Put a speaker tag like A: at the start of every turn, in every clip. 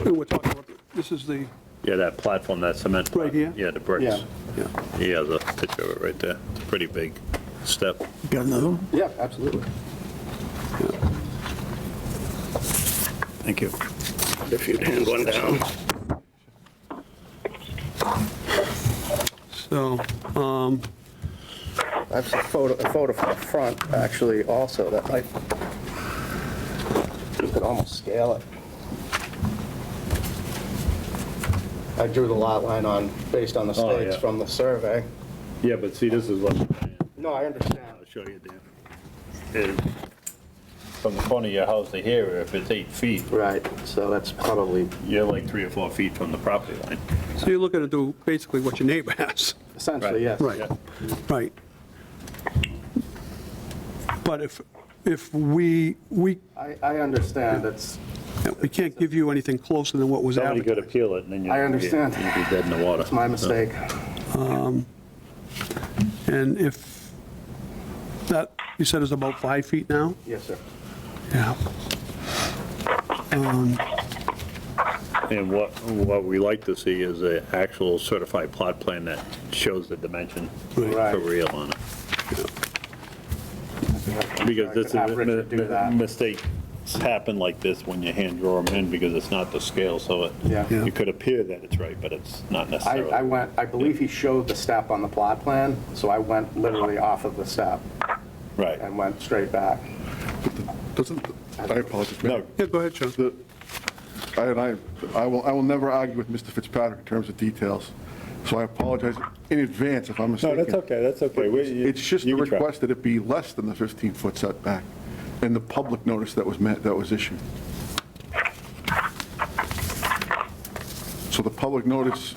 A: know, we're talking about, this is the,
B: Yeah, that platform, that cement. plat-
A: Right here?
B: Yeah, the bricks.
C: Yeah.
A: yeah.
B: Yeah, the picture of it right there. It's a pretty big step.
A: Got another one?
C: Yeah, absolutely.
B: Thank you.
D: if you'd hand one down.
A: So,
C: I have a photo, a photo from the front, actually, also, that might, you could almost scale it. I drew the lot line on, based on the
B: Oh,
C: stakes
B: yeah.
C: from the survey.
B: Yeah, but see, this is what,
C: No, I understand.
B: I'll show you, Dan. It- From the front of your house to here, if it's eight feet,
C: Right, so that's probably
B: you're like three or four feet from the property line.
A: so you're looking to do basically what your neighbor has,
C: Essentially, yes.
A: Right.
B: Yeah.
A: right? But if, if we, we,
C: I, I understand, it's,
A: we can't give you anything closer than what was
B: Somebody could
A: advertised.
B: appeal it, and then you.
C: I understand.
B: You'd be dead in the water.
C: it's my mistake.
A: And if that, you said is about five feet now?
C: Yes, sir.
A: Yeah.
B: And what, what we like to see is an actual certified plot plan that shows the dimension
A: Right.
B: for real on it.
C: I
B: Because
C: could
B: this
C: have Richard do
B: is,
C: that.
B: mistakes happen like this when you hand draw them in because it's not the scale, so it,
C: Yeah. Yeah.
B: it could appear that it's right, but it's not
C: I, I
B: necessarily.
C: went, I believe he showed the step on the plot plan, so I went literally off of the step
B: Right.
C: and went straight back.
D: Doesn't, I apologize,
B: No,
D: Mayor.
A: Yeah, go ahead, Sean.
D: The- I, and I, I will, I will never argue with Mr. Fitzpatrick in terms of details, so I apologize in advance if I'm
B: no,
D: mistaken.
B: that's okay, that's okay. We- you-
D: It's just the
B: you can try.
D: request that it be less than the 15-foot setback and the public notice that was meant, that was issued. So the public notice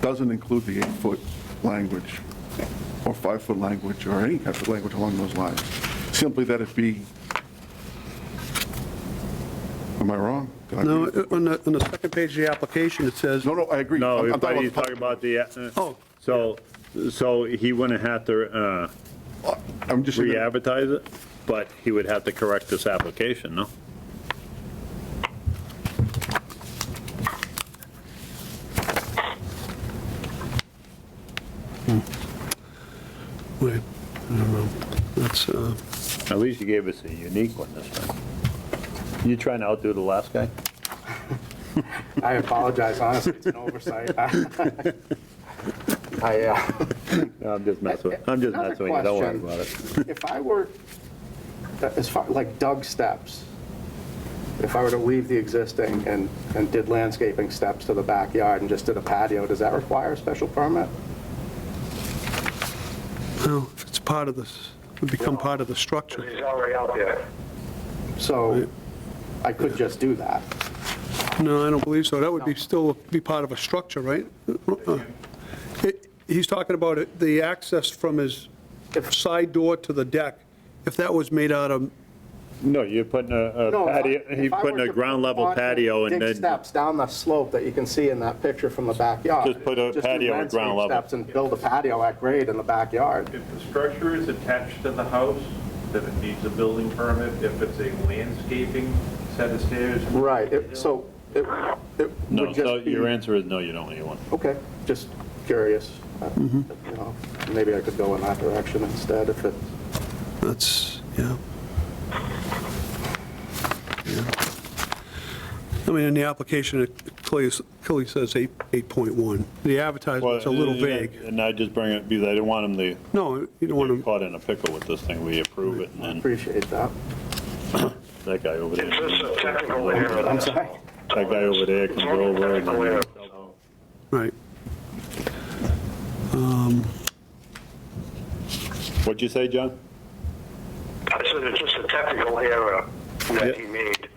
D: doesn't include the eight-foot language or five-foot language or any kind of language along those lines. Simply that it be, am I wrong? Did I
A: No, uh,
D: read it?
A: on the, on the second page of the application, it says,
D: No, no, I agree.
B: No,
D: I'm- I'm
B: he's
D: talking
B: talking
D: about the
B: about the, uh,
A: Oh.
B: so, so he wouldn't have to uh,
D: pub- I'm just, saying that-
B: re-advertise it, but he would have to correct this application, no?
A: wait, I don't know, that's, uh,
B: At least you gave us a unique one this time. You trying to outdo the last guy?
C: I apologize, honestly, it's an oversight. I, uh,
B: No, I'm just messing with, I'm just
C: Another
B: messing with you, don't worry
C: question.
B: about it.
C: if I were, as far, like Doug steps, if I were to leave the existing and, and did landscaping steps to the backyard and just did a patio, does that require a special permit?
A: no, if it's part of this, would become part of the structure.
E: He's already out there.
C: So I could just do that.
A: No, I don't believe so, that would be, still be part of a structure, right? Uh, It- He's talking about it- the access from his side door to the deck, if that was made out of,
B: No, you're putting a- a
C: No, if I-
B: patio, he's
C: if I
B: putting
C: were
B: a
C: to
B: ground level
C: put-
B: patio and
C: Dig
B: then,
C: steps down the slope that you can see in that picture from the backyard.
B: Just put a
C: do
B: patio at ground
C: landscape
B: level.
C: Steps and build a patio at grade in the backyard.
F: If the structure is attached to the house, then it needs a building permit. If it's a landscaping set of stairs.
C: Right, it- so it it
B: no,
C: would
B: so
C: just be,
B: your answer is no, you don't need one.
C: okay, just curious. Uh, you
B: Mm-hmm.
C: know, Maybe I could go in that direction instead if it,
A: that's, yeah. Yeah. I mean, in the application, it clearly, clearly says eight 8.1. The advertisement's a little
B: Well,
A: vague.
B: And I just bring it, because I didn't want him to
A: No, you don't want to
B: get caught in a pickle with this thing, we approve it, and then
C: appreciate that.
B: that guy over there.
E: This is a technical
B: That
C: I'm
E: error.
C: sorry.
B: guy over there can go over and
E: Technical error.
A: Right.
B: What'd you say, John?
E: I said it's just a technical error that he made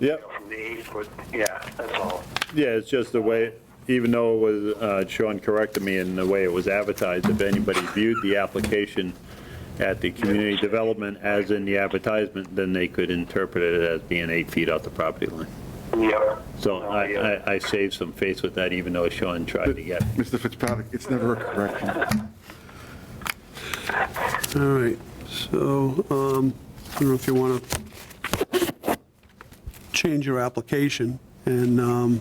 B: Yep.
E: from the eight foot, yeah, that's all.
B: Yeah, it's just the way, even though it was, uh, Sean corrected me in the way it was advertised, if anybody viewed the application at the community development as in the advertisement, then they could interpret it as being eight feet off the property line.
E: Yep.
B: So I, I- I saved some face with that, even though Sean tried to get.
D: Mr. Fitzpatrick, it's never a correction.
A: All right, so, um, I don't know if you want to change your application, and, um,